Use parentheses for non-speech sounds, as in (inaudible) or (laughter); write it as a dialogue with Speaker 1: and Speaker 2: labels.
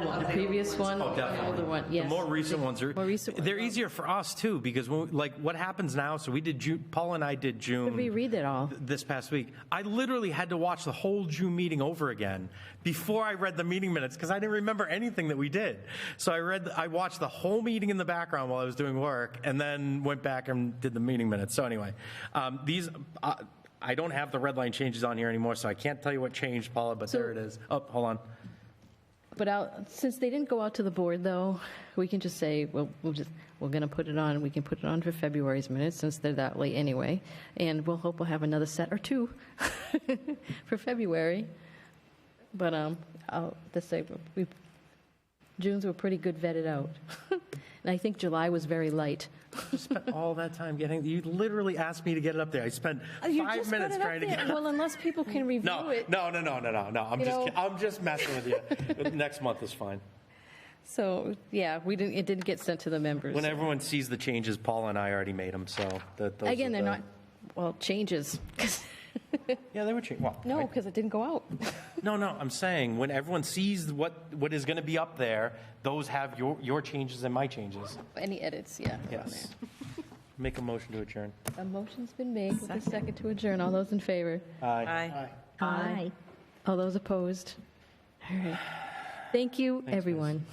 Speaker 1: the previous one,
Speaker 2: Oh,
Speaker 1: the
Speaker 2: definitely.
Speaker 1: older one, yes.
Speaker 2: The more recent ones are.
Speaker 1: More recent ones.
Speaker 2: They're easier for us too, because when, like, what happens now, so we did June, Paul and I did June.
Speaker 1: We read it all.
Speaker 2: This past week, I literally had to watch the whole June meeting over again before I read the meeting minutes because I didn't remember anything that we did. So I read, I watched the whole meeting in the background while I was doing work, and then went back and did the meeting minutes. So anyway, um, these. Uh, I don't have the red line changes on here anymore, so I can't tell you what changed, Paula, but
Speaker 1: So-
Speaker 2: there it is. Oh, hold on.
Speaker 1: But out, since they didn't go out to the board, though, we can just say, well, we'll just, we're going to put it on, we can put it on for February's minutes, since they're that late anyway, and we'll hope we'll have another set or two (laughs) for February. But, um, I'll, just say, we, June's were pretty good vetted out. (laughs) And I think July was very light.
Speaker 2: spent all that time getting. You literally asked me to get it up there. I spent
Speaker 1: Oh,
Speaker 2: five minutes trying to get. it up.
Speaker 1: Well, unless people can
Speaker 2: No,
Speaker 1: review it.
Speaker 2: no, no, no, no, no, no. I'm
Speaker 1: You
Speaker 2: just,
Speaker 1: know-
Speaker 2: kid- I'm just messing with you. (laughs) Next month is fine.
Speaker 1: So, yeah, we didn't, it didn't get sent to the members.
Speaker 2: When everyone sees the changes, Paul and I already made them. So that those
Speaker 1: Again,
Speaker 2: are
Speaker 1: they're
Speaker 2: the-
Speaker 1: not, well, changes, (laughs) 'cause-
Speaker 2: Yeah, they were changed. Well,
Speaker 1: no,
Speaker 2: I-
Speaker 1: because it didn't go out.
Speaker 2: no, no. I'm saying when everyone sees what what is going to be up there, those have your your changes and my changes.
Speaker 1: Any edits, yeah.
Speaker 2: Yes. Make a motion to adjourn.
Speaker 1: A motion's been made with a second to adjourn. All those in favor?
Speaker 2: Aye.
Speaker 3: Aye.
Speaker 1: Aye. All those opposed? All right. Thank you, everyone.